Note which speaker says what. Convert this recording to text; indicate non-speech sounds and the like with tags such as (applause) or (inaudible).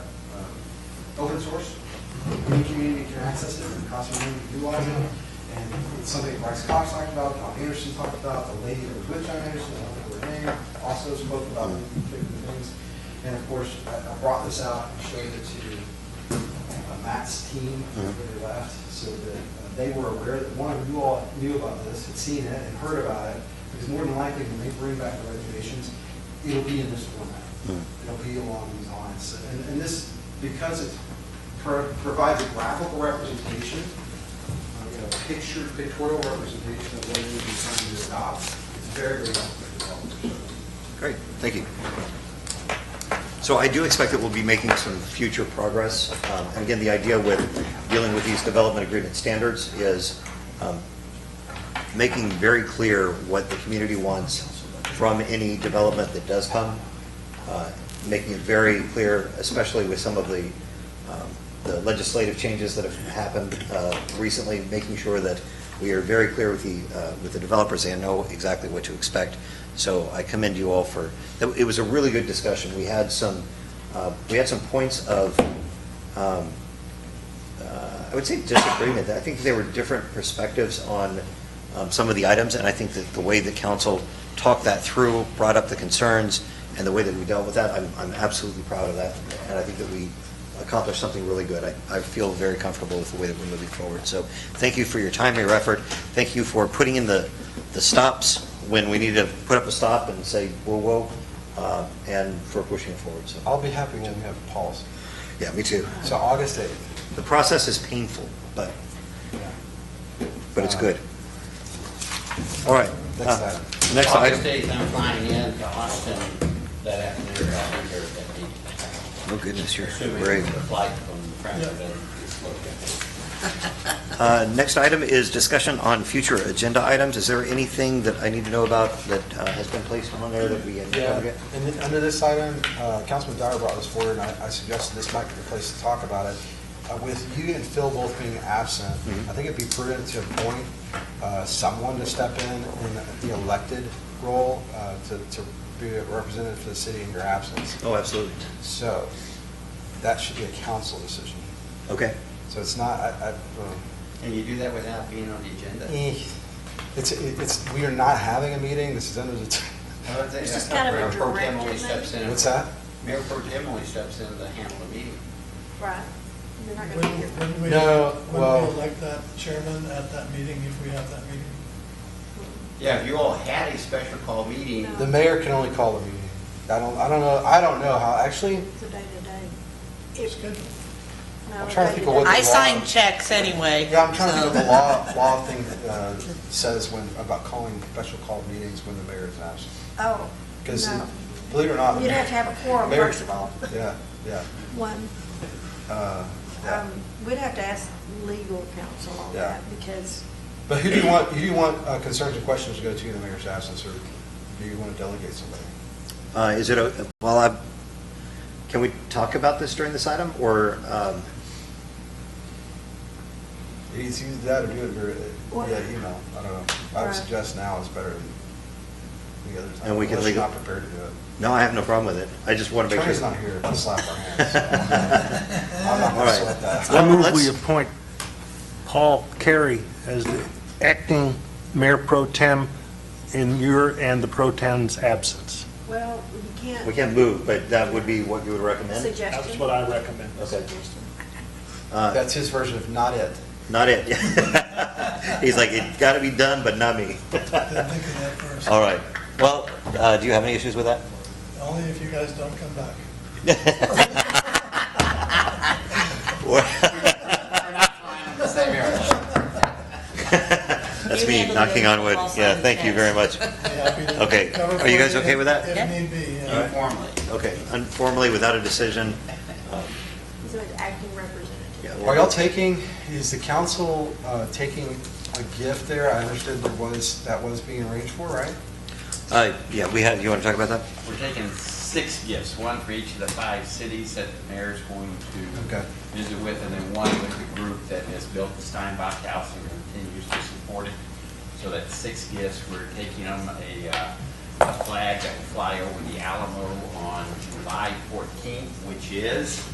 Speaker 1: uh, open source. Any community can access it, it costs money to utilize it. And it's something Bryce Cox talked about, Tom Anderson talked about, the lady that was with Tom Anderson, I don't remember her name, also spoke about these particular things. And of course, I I brought this out and showed it to uh, Matt's
Speaker 2: Mm-hmm.
Speaker 1: team after they left, so that uh, they were aware that one of you all knew about this, had seen it and heard about it, because more than likely, when they bring back the regulations, it'll be in this format.
Speaker 2: Mm-hmm.
Speaker 1: It'll be along these lines. And, and this, because it pro- provides a graphical representation, uh, you know, picture, pictorial representation of what it is you're trying to stop, it's very, very helpful to developers.
Speaker 3: Great, thank you. So I do expect that we'll be making some future progress. Um, And again, the idea with dealing with these development agreement standards is um, making very clear what the community wants from any development that does come, uh, making it very clear, especially with some of the um, the legislative changes that have happened uh, recently, making sure that we are very clear with the, uh, with the developers and know exactly what to expect. So I commend you all for, it was a really good discussion. We had some, uh, we had some points of, um, uh, I would say disagreement. I think there were different perspectives on um, some of the items, and I think that the way that council talked that through, brought up the concerns, and the way that we dealt with that, I'm I'm absolutely proud of that, and I think that we accomplished something really good. I I feel very comfortable with the way that we're moving forward. So thank you for your time, your effort. Thank you for putting in the the stops when we need to put up a stop and say, whoa, whoa, uh, and for pushing it forward, so.
Speaker 2: I'll be happy when we have a policy.
Speaker 3: Yeah, me too.
Speaker 2: So August 8th.
Speaker 3: The process is painful, but, but it's good. All right.
Speaker 2: Next
Speaker 3: uh,
Speaker 2: item.
Speaker 3: Next
Speaker 4: August
Speaker 3: item.
Speaker 4: 8th, I'm flying in to Austin that afternoon, I'll be here at the,
Speaker 3: Oh goodness, you're
Speaker 4: assuming
Speaker 3: brave.
Speaker 4: the flight from Frankfurt is located.
Speaker 3: Uh, Next item is discussion on future agenda items. Is there anything that I need to know about that uh, has been placed on there that we had?
Speaker 2: Yeah, and then under this item, uh, Councilman Dyer brought this forward, and I I suggested this might be the place to talk about it. Uh, With you and Phil both being absent,
Speaker 3: Mhm.
Speaker 2: I think it'd be prudent to appoint uh, someone to step in in the elected role uh, to to be a representative for the city in your absence.
Speaker 3: Oh, absolutely.
Speaker 2: So that should be a council decision.
Speaker 3: Okay.
Speaker 2: So it's not, I, I, um,
Speaker 4: And you do that without being on the agenda?
Speaker 2: Eh, It's, it's, we are not having a meeting, this is under the, (laughs)
Speaker 4: Well, they-
Speaker 5: It's just kind of a
Speaker 4: Mayor Pro Tem
Speaker 5: direct
Speaker 4: only
Speaker 5: amendment.
Speaker 4: steps in-
Speaker 2: what's that?
Speaker 4: Mayor Pro Tem only steps in to handle the meeting.
Speaker 5: Right. You're not going to be here.
Speaker 6: Wouldn't we,
Speaker 2: No,
Speaker 6: wouldn't
Speaker 2: well-
Speaker 6: we elect that chairman at that meeting if we have that meeting?
Speaker 4: Yeah, if you all had a special call meeting,
Speaker 5: No.
Speaker 2: The mayor can only call the meeting. I don't, I don't know, I don't know how, actually,
Speaker 5: It's a day-to-day.
Speaker 6: It's
Speaker 5: If-
Speaker 6: good.
Speaker 5: no,
Speaker 2: I'm trying to think of
Speaker 5: day-to-day.
Speaker 2: what-
Speaker 7: I
Speaker 2: the law-
Speaker 7: sign checks anyway.
Speaker 2: yeah, I'm trying to think of the
Speaker 7: so-
Speaker 2: law, law thing that uh, says when, about calling special call meetings when the mayor is absent.
Speaker 5: Oh,
Speaker 2: Because,
Speaker 5: no.
Speaker 2: believe it or not. the
Speaker 5: You'd have to have a quorum,
Speaker 2: mayor-
Speaker 5: first of all.
Speaker 2: Yeah, yeah,
Speaker 5: One,
Speaker 2: uh, yeah.
Speaker 5: um, we'd have to ask legal counsel on
Speaker 2: Yeah.
Speaker 5: that because
Speaker 2: But who do you want, who do you want uh, concerns and questions to go to in the mayor's absence, or do you want to delegate somebody?
Speaker 3: Uh, Is it, a- well, I, can we talk about this during this item, or, um,
Speaker 2: It's either that or do it via-
Speaker 5: What?
Speaker 2: via email. I don't know. I would
Speaker 5: Right.
Speaker 2: suggest now is better than the other time.
Speaker 3: And we can
Speaker 2: Unless you're
Speaker 3: legal-
Speaker 2: not prepared to do it.
Speaker 3: no, I have no problem with it. I just want to make sure.
Speaker 2: Attorney's not here to slap our
Speaker 3: (laughs)
Speaker 2: hands. so I'm not
Speaker 3: All
Speaker 2: going to
Speaker 3: right.
Speaker 2: sweat that.
Speaker 8: I move we
Speaker 3: Let's-
Speaker 8: appoint Paul Carey as the acting mayor pro tem in your and the pro tem's absence.
Speaker 5: Well, you can't.
Speaker 3: We can move, but that would be what you would recommend?
Speaker 5: Suggestion.
Speaker 8: I recommend.
Speaker 3: Okay.
Speaker 5: Suggestion.
Speaker 3: Uh,
Speaker 2: That's his version of not it.
Speaker 3: Not it. (laughs) He's like, it got to be done, but
Speaker 2: (laughs)
Speaker 3: not me.
Speaker 6: Didn't think of that first.
Speaker 3: All right. Well, uh, do you have any issues with that? (laughs)
Speaker 6: Only if you guys don't come back.
Speaker 4: same area.
Speaker 3: (laughs) That's
Speaker 7: You
Speaker 3: me
Speaker 7: handle
Speaker 3: knocking
Speaker 7: it.
Speaker 3: on wood.
Speaker 7: I'll sign
Speaker 3: Yeah,
Speaker 7: the
Speaker 3: thank you
Speaker 7: checks.
Speaker 3: very much.
Speaker 6: Be happy to
Speaker 3: Okay.
Speaker 6: cover
Speaker 3: Are you
Speaker 6: for
Speaker 3: guys okay
Speaker 6: if-
Speaker 3: with that?
Speaker 7: Yeah.
Speaker 6: If need be, yeah.
Speaker 4: informally.
Speaker 3: Okay, informally, without a decision.
Speaker 5: He's an acting representative.
Speaker 3: yeah,
Speaker 2: Are y'all taking, is the council uh, taking a gift there? I understood there was, that was being arranged for, right?
Speaker 3: Uh, Yeah, we have, you want to talk about that?
Speaker 4: We're taking six gifts, one for each of the five cities that the mayor's going
Speaker 2: Okay.
Speaker 4: to visit with, and then one with the group that has built the Steinbach House and continues to support it. So that's six gifts. We're taking them a uh, a flag that will fly over the Alamo on July 14th, which is